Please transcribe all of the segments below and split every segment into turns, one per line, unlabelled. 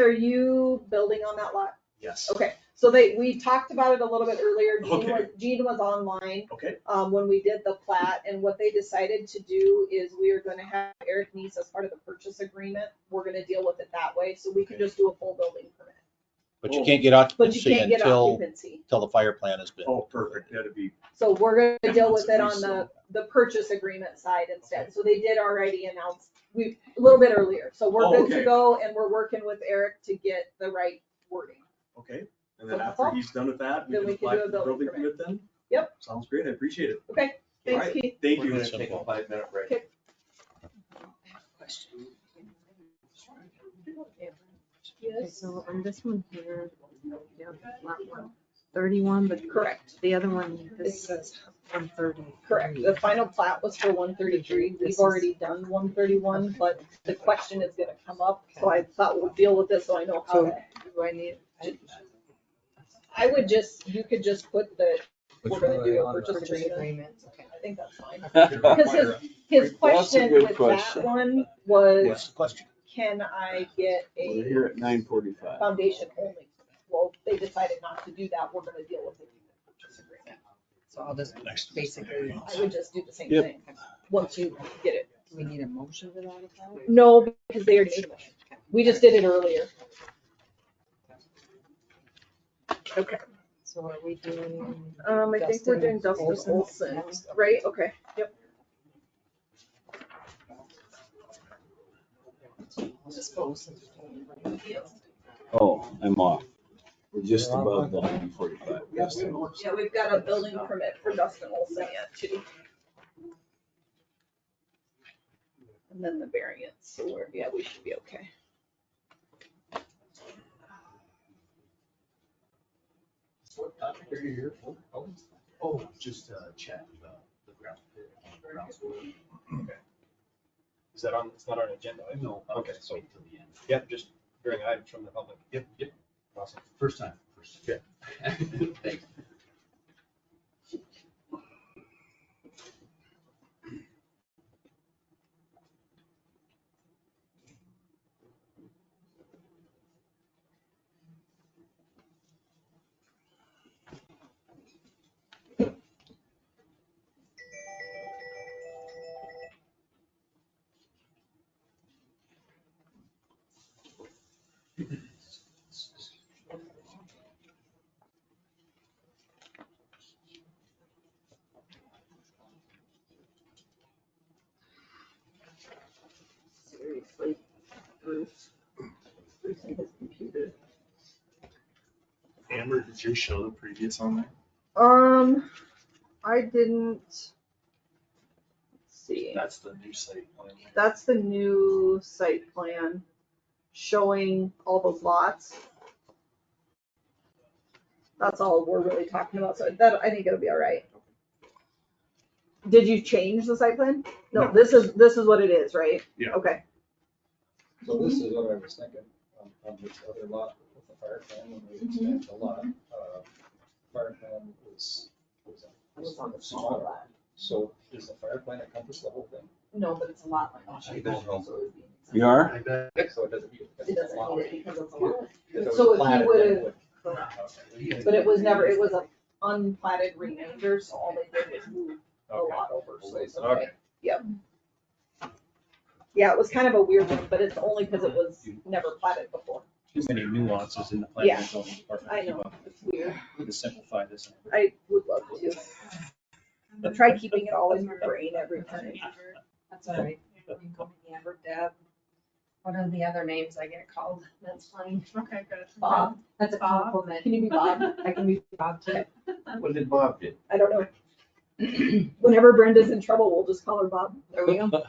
are you building on that lot?
Yes.
Okay, so they, we talked about it a little bit earlier. Gene
Okay.
was, Gene was online.
Okay.
Um, when we did the plat, and what they decided to do is we are gonna have Eric Neese as part of the purchase agreement. We're gonna deal with it that way, so we can just do a full building permit.
But you
Oh.
can't get
But you
occupancy
can't get
until,
occupancy.
until the fire plan has been.
Oh, perfect. That'd be,
So we're gonna deal with
Yeah,
it
that's
on
a
the, the purchase agreement side instead, so they did already announce, we, a little bit earlier, so we're
Oh,
good to
okay.
go, and we're working with Eric to get the right wording.
okay. And then
So that's
after
all.
he's done with that, we
Then
can
we can
apply
do a
for the
building
building permit then?
Yep.
Sounds great. I appreciate it.
Okay, thanks
Alright,
Keith.
Thank
We're
you.
gonna take a five minute break.
Okay, So on this one here, yeah, lot one, thirty-one, but
Correct,
the other one, this says one thirty.
correct, the final plat was for one thirty-three,
This
we've
is-
already done one thirty-one, but the question is gonna come up, so I thought we'll deal with this, so I know how to.
Do I need?
I would just, you could just put the,
Which
we're gonna
one
do
are
a
we on?
purchase
Purchase
agreement,
agreements, okay.
I think that's fine. Because
Because
his, his
That's a
question
good
with that
question.
one was,
What's the question?
can I get
We're
a
here at nine forty-five.
foundation only? Well, they decided not to do that, we're gonna deal with it. in the purchase agreement.
So I'll just
Next.
basically,
I would just do the same
Yep.
thing, once you get it.
do we need a motion for that effect?
No, because they already, we just did it earlier. Okay,
So are we doing?
um, I think we're doing Dustin
Olson?
Olson, right, okay, yep.
Just Olson.
Oh, I'm off. We're just
You're
above
off.
the nine forty-five.
Yeah, we've got a building permit for Dustin Olson yet too. And then the variance, so we're, yeah, we should be okay.
What topic are you here for? Oh, Oh, just uh, chat about the ground. ground score.
Is that on, it's not on agenda? item?
No, I'll
Okay,
just
so,
wait till the end.
yeah, just hearing items from the public.
Yep, yep,
Awesome.
first time. first time. Thanks.
Seriously, Bruce. Bruce and his computer.
Amber, did you show the previous on there?
Um, I didn't. Let's see,
That's the new site plan.
that's the new site plan showing all the lots. That's all we're really talking about, so that, I think it'll be all right. Did you change the site plan? No,
No.
this is, this is what it is, right?
Yeah.
Okay,
So this is what I was thinking, on, on this other lot with the fire plan, when we expand the lot, uh, fire plan was, was. Was on the smaller lot. So does the fire plan encompass the whole thing?
no, but it's a lot
I don't know.
You are?
So it doesn't. need-
It doesn't need it because it's a lot.
If it was
So if he
platted, then
would've-
it would- Okay.
But it was never, it was a unplatted remainder, so all they did was move a
Okay.
lot over, so it's
Okay.
okay. Yep. Yeah, it was kind of a weird one, but it's only because it was never platted before.
Too many nuances in the
Yeah.
and zoning department.
I know, it's weird.
To simplify this.
I would love to. I Try keeping it all in your brain every time.
That's all right. You can call me Amber Deb. What are the other names I get called? That's funny.
Okay, good.
Bob,
That's a compliment.
can you be Bob?
I can be Bob too.
What did Bob do?
I don't know. Whenever Brenda's in trouble, we'll just call her Bob.
There we go.
No,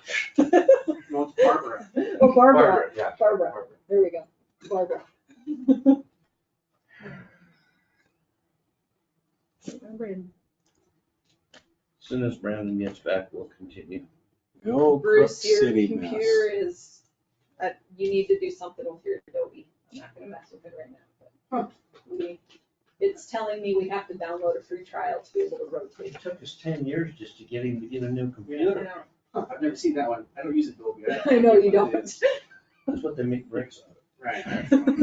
it's Barbara.
Or Barbara,
Barbara, yeah.
Barbara, there we go, Barbara. Remember in
Soon as Brandon gets back, we'll continue.
Well,
Go Brook
Bruce, your
City mess.
computer is, uh, you need to do something with your Adobe. I'm not gonna mess with it right now, but. we- It's telling me we have to download a free trial to be able to rotate.
It took us ten years just to get him to get a new computer.
I
I've never seen that one. I don't use Adobe.
know you
what it
don't.
is.
That's what they make bricks out of.
Right.